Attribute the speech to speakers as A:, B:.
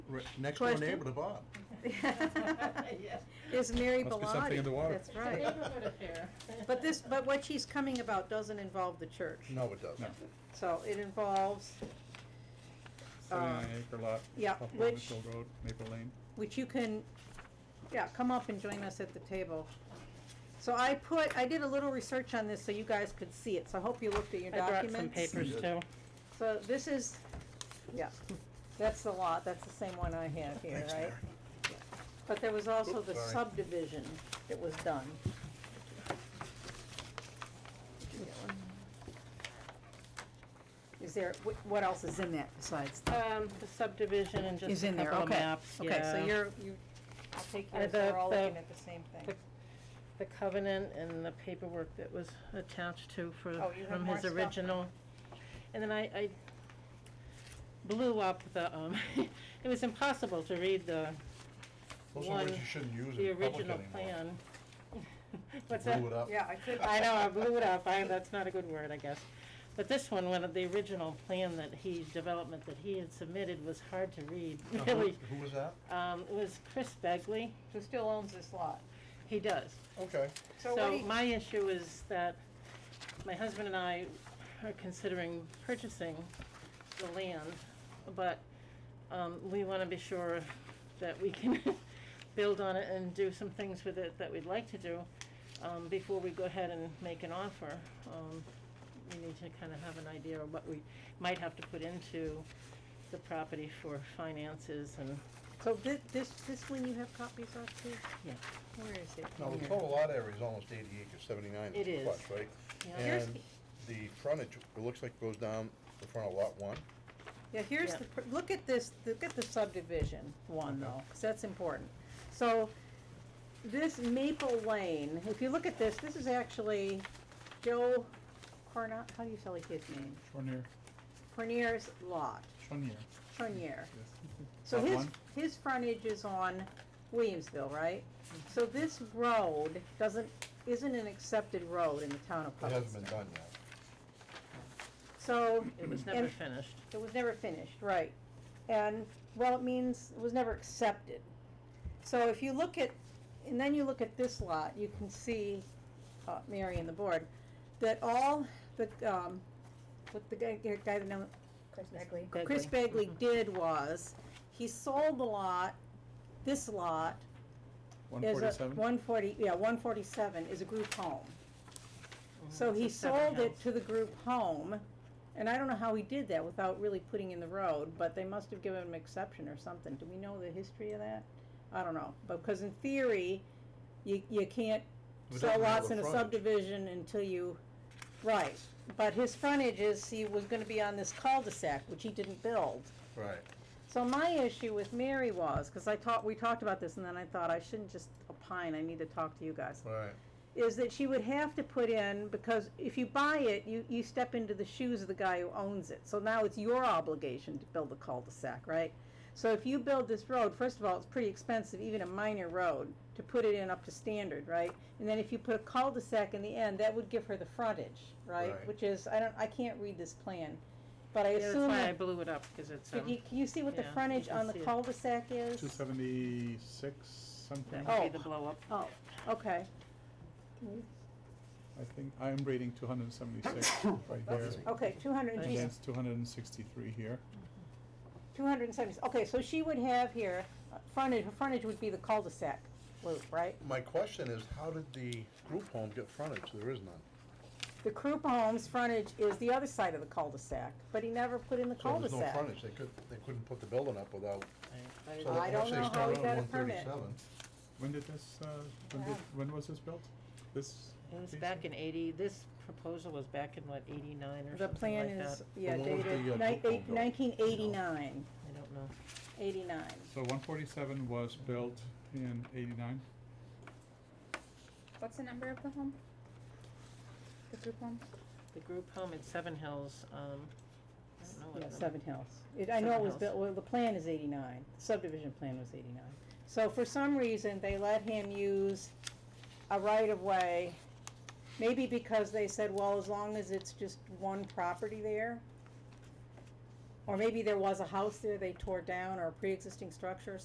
A: Re- Next door
B: Question?
A: neighbor to Bob.
C: Yes.
B: Is Mary Bellotti.
D: Must be something in the water.
B: That's
C: It's a
B: right.
C: neighborhood affair.
B: But this, but what she's coming about doesn't involve the church.
A: No, it doesn't.
B: So it involves,
D: Seventy-nine
B: Um,
D: acre lot.
B: yeah,
D: off of
B: which-
D: Mitchell Road, Maple Lane.
B: which you can, yeah, come up and join us at the table. So I put, I did a little research on this so you guys could see it, so I hope you looked at your
C: I
B: documents.
C: brought some papers
A: Yes.
C: too.
B: So this is, yeah, that's the lot, that's the same one I have here,
A: Thanks,
B: right?
A: Mary.
B: Yeah. But there was also
A: Oops,
B: the
A: sorry.
B: subdivision that was done. Did you get one? Is there, what, what else is in that besides? that?
C: Um, the subdivision and just
B: Uh, Is
C: a
B: in there,
C: couple of
B: okay,
C: maps, yeah.
B: okay, so you're, you, I'll take
C: Uh,
B: yours, so
C: the-
B: we're all
C: the-
B: looking at the same thing.
C: The covenant and the paperwork that was attached to for,
B: Oh, you have
C: from
B: more
C: his
B: stuff?
C: original. And then I, I blew up the, um, it was impossible to read the,
A: Those are words
C: One,
A: you shouldn't use
C: the
A: in public
C: original
A: anymore.
C: plan. What's
A: You
C: that?
A: Blew it up.
B: Yeah, I could.
C: I know, I blew it up, I, that's not a good word, I guess. But this one, one of the original plan that he, development that he had submitted was hard to read,
A: Now, who-
C: really.
A: Uh-huh. Who was that?
B: Uh,
C: Um, it was Chris Begley,
B: Who still owns this lot?
C: he does.
A: Okay.
B: So what do
C: So
B: you-
C: my issue is that my husband and I are considering purchasing the land, but, um, we wanna be sure that we can build on it and do some things with it that we'd like to do, um, before we go ahead and make an offer. Um, we need to kinda have an idea of what we might have to put into the property for finances and,
B: So thi- this, this one you have copies of too?
C: yeah.
B: Where is it?
A: Now, the
B: Here.
A: total lot area is almost eighty acres, seventy-nine
C: It
A: is
C: is.
A: plus, right?
C: Yeah.
B: Here's
A: And the frontage, it looks like goes down the front of lot one.
B: Yeah, here's
C: Yeah.
B: the, pr- look at this, look at the subdivision one
A: Okay.
B: though, 'cause that's important. So, this Maple Lane, if you look at this, this is actually Joe Cornot, how do you spell his name?
D: Chonier,
B: Cornier's lot,
D: Chonier,
B: Cornier.
D: yes.
B: So
D: Lot
B: his,
D: one.
B: his frontage is on Williamsville, right? So this road doesn't, isn't an accepted road in the town of
A: It hasn't been
B: Hubbardston.
A: done yet.
B: So,
C: It was never
B: And-
C: finished.
B: It was never finished, right. And, well, it means it was never accepted. So if you look at, and then you look at this lot, you can see, uh, Mary and the board, that all the, um, what the guy, guy that known,
E: Chris Begley.
B: Chris Bagley did was, he sold the lot, this lot,
D: One
B: is a,
D: forty-seven?
B: one forty, yeah, one forty-seven is a group home. So
C: Mhm. it's
B: he
C: a separate
B: sold it
C: house.
B: to the group home, and I don't know how he did that without really putting in the road, but they must have given him exception or something. Do we know the history of that? I don't know, because in theory, you, you can't
A: We
B: sell
A: don't know
B: lots
A: the
B: in a
A: frontage.
B: subdivision until you, right. But his frontage is, he was gonna be on this cul-de-sac, which he didn't build.
A: Right.
B: So my issue with Mary was, because I talked, we talked about this, and then I thought I shouldn't just opine, I need to talk to you guys,
A: Right.
B: is that she would have to put in, because if you buy it, you, you step into the shoes of the guy who owns it. So now it's your obligation to build the cul-de-sac, right? So if you build this road, first of all, it's pretty expensive, even a minor road, to put it in up to standard, right? And then if you put a cul-de-sac in the end, that would give her the frontage, right?
A: Right.
B: Which is, I don't, I can't read this plan, but I
C: Yeah, That's
B: assume
C: why I
B: that,
C: blew it up, because it's,
B: can
C: um,
B: you, can you see what the
C: yeah, you
B: frontage
C: can
B: on the
C: see it.
B: cul-de-sac is?
D: Two seventy-six, something,
C: that would be
B: Oh.
C: the blow up.
B: Oh, okay.
D: I think, I'm reading two hundred and seventy-six right there.
B: Okay, two hundred,
D: And
C: geez.
D: that's two hundred and sixty-three here.
B: two hundred and seventy, okay, so she would have here, uh, frontage, her frontage would be the cul-de-sac loop, right?
A: My question is, how did the group home get frontage? There is none.
B: The Krupp Homes frontage is the other side of the cul-de-sac, but he never put in the
A: So there's no
B: cul-de-sac.
A: frontage. They could, they couldn't put the building up without,
C: I-
A: so
B: I
A: they
B: don't
A: actually
B: know how
A: start
B: he
A: out
B: got a
A: at one
B: permit.
A: thirty-seven.
D: When did this, uh, when did, when was this built? This?
C: It was
D: piece
C: back
D: here?
C: in eighty, this proposal was back in what, eighty-nine or
B: The
C: something
B: plan
C: like
B: is,
C: that?
B: yeah,
A: Well, when was the, uh,
B: dated
A: Krupp home built?
B: nineteen eighty-nine,
C: I don't know.
B: eighty-nine.
D: So one forty-seven was built in eighty-nine,
E: What's the number of the home? The group home?
C: The group home in Seven Hills, um, I don't know what
B: Yeah,
C: number.
B: Seven Hills. It, I know it
C: Seven
B: was
C: Hills.
B: built, well, the plan is eighty-nine, The subdivision plan was eighty-nine. So for some reason, they let him use a right-of-way, maybe because they said, well, as long as it's just one property there. Or maybe there was a house there they tore down or a pre-existing structure,